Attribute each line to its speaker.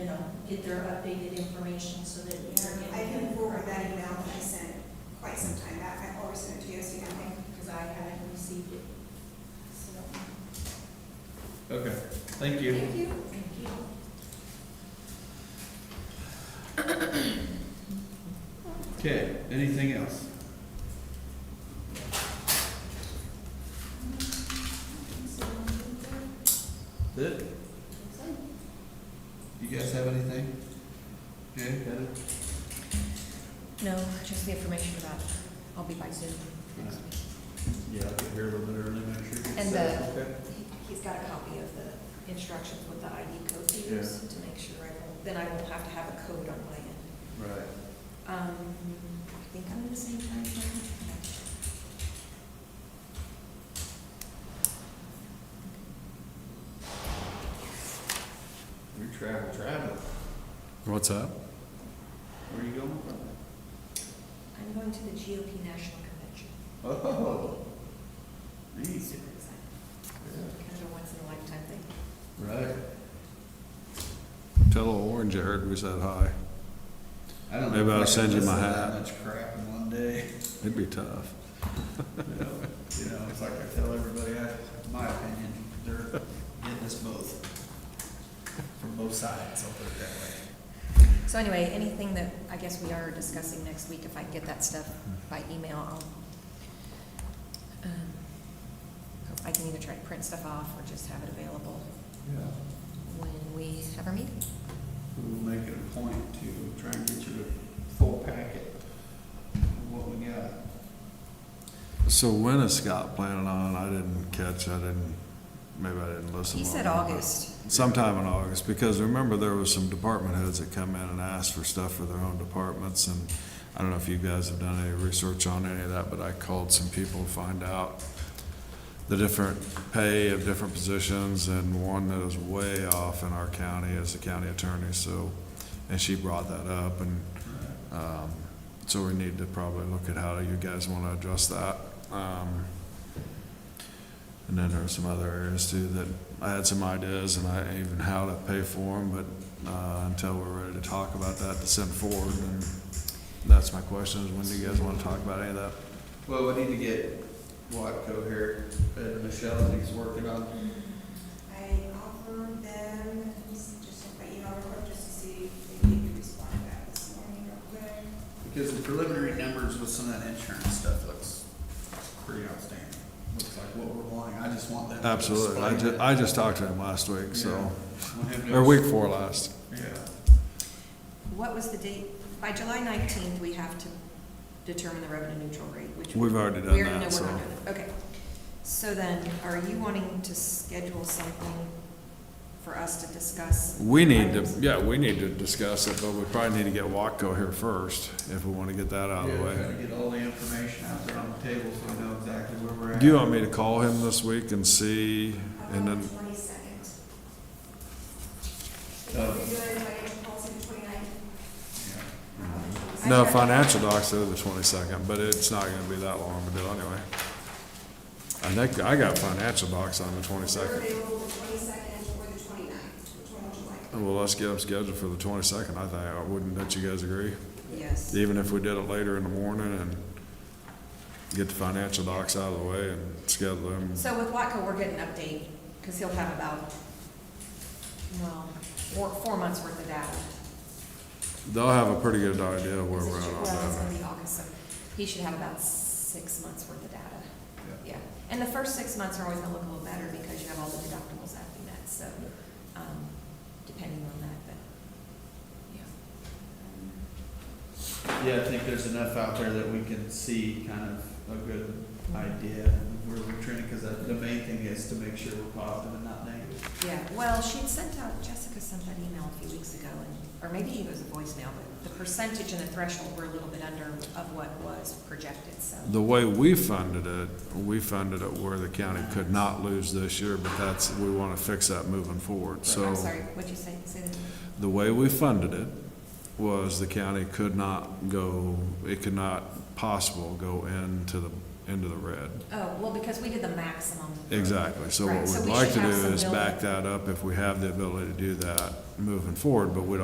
Speaker 1: get their updated information so that you're getting.
Speaker 2: I can forward that email that I sent quite some time back, I always send it to you, so you know.
Speaker 1: Because I haven't received it. So,
Speaker 3: Okay, thank you.
Speaker 2: Thank you.
Speaker 1: thank you.
Speaker 3: Okay, anything else? That, you guys have anything? Jay, Heather?
Speaker 4: No, just the information about, I'll be by Zoom next week.
Speaker 3: Yeah, I can hear a little bit early, make sure.
Speaker 4: And the-
Speaker 3: Okay.
Speaker 4: He- He's got a copy of the instructions with the ID code to use to make sure I won't, then I won't have to have a code on my end.
Speaker 3: Right.
Speaker 4: Um, I think I'm in the same time zone.
Speaker 3: We travel, travel.
Speaker 5: What's up?
Speaker 3: Where you going?
Speaker 4: I'm going to the GOP National Convention.
Speaker 3: Oh, nice.
Speaker 4: Super excited.
Speaker 3: Yeah.
Speaker 4: Kind of a once in a lifetime thing.
Speaker 3: Right.
Speaker 5: Tell old Orange you heard we said hi.
Speaker 3: I don't know.
Speaker 5: Maybe
Speaker 3: if I
Speaker 5: I'll
Speaker 3: can
Speaker 5: send you
Speaker 3: listen
Speaker 5: my
Speaker 3: to
Speaker 5: hat.
Speaker 3: That much crap in one day.
Speaker 5: It'd be tough.
Speaker 3: You know, You know, it's like I tell everybody, I, my opinion, they're getting us both. From both sides, I'll put it that way.
Speaker 4: So anyway, anything that I guess we are discussing next week, if I can get that stuff by email, I'll, um, I can either try to print stuff off or just have it available
Speaker 3: Yeah.
Speaker 4: when we have our meeting.
Speaker 3: We'll make it a point to try and get you a full packet of what we got.
Speaker 5: So when is Scott planning on? I didn't catch, I didn't, maybe I didn't listen.
Speaker 4: He
Speaker 5: well
Speaker 4: said
Speaker 5: enough, but
Speaker 4: August.
Speaker 5: Sometime in August, because remember there was some department heads that come in and asked for stuff for their own departments and I don't know if you guys have done any research on any of that, but I called some people to find out the different pay of different positions and one that is way off in our county is the county attorney, so, and she brought that up and Um, So we need to probably look at how you guys want to address that. Um, And then there are some other areas too that I had some ideas and I even how to pay for them, but uh, until we're ready to talk about that to send forward, and that's my question, is when do you guys want to talk about any of that?
Speaker 3: Well, we need to get Watco here, and Michelle, I think, is working on
Speaker 2: I offered them, just check my email real quick, just to see if they could respond to that this morning real quick.
Speaker 3: Because the preliminary numbers with some of that insurance stuff looks pretty outstanding. Looks like what we're wanting. I just want them. to
Speaker 5: Absolutely. I
Speaker 3: explain
Speaker 5: ju-
Speaker 3: it.
Speaker 5: I just talked to him last week, so,
Speaker 3: Yeah. Want him to-
Speaker 5: or week four last.
Speaker 3: Yeah.
Speaker 4: What was the date? By July nineteenth, we have to determine the revenue neutral rate, which.
Speaker 5: We've already done
Speaker 4: we already know
Speaker 5: that,
Speaker 4: we're
Speaker 5: so.
Speaker 4: not doing it. Okay. So then, are you wanting to schedule something for us to discuss?
Speaker 5: We need to, yeah, we need to discuss it, but we probably need to get Watco here first if we want to get that out of the
Speaker 3: Yeah,
Speaker 5: way.
Speaker 3: trying to get all the information out there on the table so we know exactly where we're at.
Speaker 5: Do you want me to call him this week and see, and then,
Speaker 2: Twenty-second. If
Speaker 3: Oh.
Speaker 2: you're doing it, I can call it
Speaker 3: Yeah.
Speaker 2: twenty-nine.
Speaker 5: no, financial docs are the twenty-second, but it's not gonna be that long to do anyway. I think, I got financial docs on the
Speaker 2: We're
Speaker 5: twenty-second.
Speaker 2: available the twenty-second or the twenty-ninth, which one would you like?
Speaker 5: Well, let's get them scheduled for the twenty-second, I think, Uh, wouldn't, don't you guys agree?
Speaker 4: Yes.
Speaker 5: Even if we did it later in the morning and get the financial docs out of the way and schedule them.
Speaker 4: So with Watco, we're getting an update, because he'll have about, well, four, four months worth of data.
Speaker 5: They'll have a pretty good idea of where we're at on
Speaker 4: Well, it's
Speaker 5: that.
Speaker 4: gonna be August, so he should have about six months worth of data. Yeah, and the first six months are always gonna look a little better because you have all the deductibles that we met, so, um, depending on that, but, yeah.
Speaker 3: Yeah, I think there's enough out there that we can see kind of a good idea of where we're trending, because the main thing is to make sure we're positive and not negative.
Speaker 4: Yeah, well, she had sent out, Jessica sent that email a few weeks ago, and, or maybe it was a voicemail, but the percentage and the threshold were a little bit under of what was projected, so.
Speaker 5: The way we funded it, we funded it where the county could not lose this year, but that's, we want to fix that moving forward, so.
Speaker 4: I'm sorry, what'd you say, say that again?
Speaker 5: The way we funded it was the county could not go, it could not possible go into the, into the red.
Speaker 4: Oh, well, because we did the maximum.
Speaker 5: Exactly, so
Speaker 4: Right,
Speaker 5: what
Speaker 4: so
Speaker 5: we'd
Speaker 4: we
Speaker 5: like
Speaker 4: should
Speaker 5: to do
Speaker 4: have some
Speaker 5: is back
Speaker 4: building.
Speaker 5: that up if we have the ability to do that moving forward, but we don't